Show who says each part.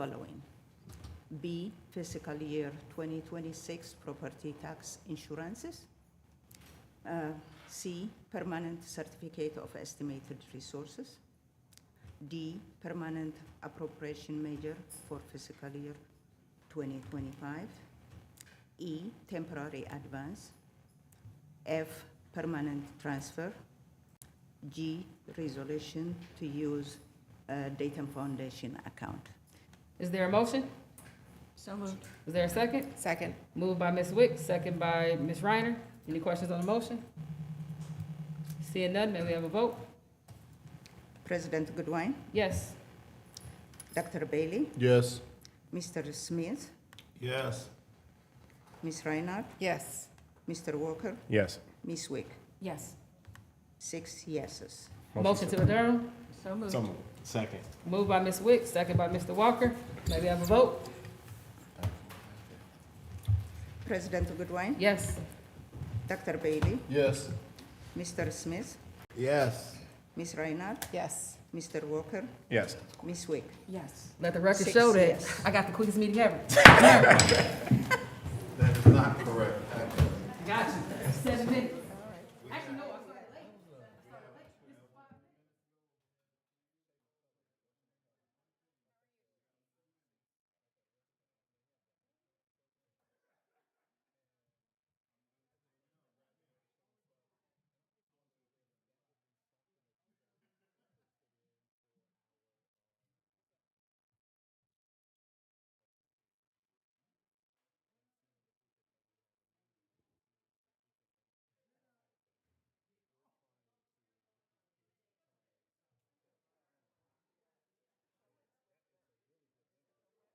Speaker 1: following. B, fiscal year 2026 property tax insurances. Uh, C, permanent certificate of estimated resources. D, permanent appropriation measure for fiscal year 2025. E, temporary advance. F, permanent transfer. G, resolution to use uh, Dayton Foundation account.
Speaker 2: Is there a motion?
Speaker 3: So moved.
Speaker 2: Is there a second?
Speaker 3: Second.
Speaker 2: Moved by Ms. Wick, second by Ms. Reiner. Any questions on the motion? Seeing none, may we have a vote?
Speaker 1: President Goodwin,
Speaker 2: Yes.
Speaker 1: Dr. Bailey,
Speaker 4: Yes.
Speaker 1: Mr. Smith,
Speaker 4: Yes.
Speaker 1: Ms. Reinhardt,
Speaker 3: Yes.
Speaker 1: Mr. Walker,
Speaker 4: Yes.
Speaker 1: Ms. Wick.
Speaker 3: Yes.
Speaker 1: Six yeses.
Speaker 2: Motion to adjourn.
Speaker 3: So moved.
Speaker 4: Some, second.
Speaker 2: Moved by Ms. Wick, second by Mr. Walker. May we have a vote?
Speaker 1: President Goodwin,
Speaker 2: Yes.
Speaker 1: Dr. Bailey,
Speaker 4: Yes.
Speaker 1: Mr. Smith,
Speaker 4: Yes.
Speaker 1: Ms. Reinhardt,
Speaker 3: Yes.
Speaker 1: Mr. Walker,
Speaker 4: Yes.
Speaker 1: Ms. Wick.
Speaker 3: Yes.
Speaker 2: Let the record
Speaker 1: Six
Speaker 2: show that
Speaker 1: yes.
Speaker 2: I got the quickest meeting ever.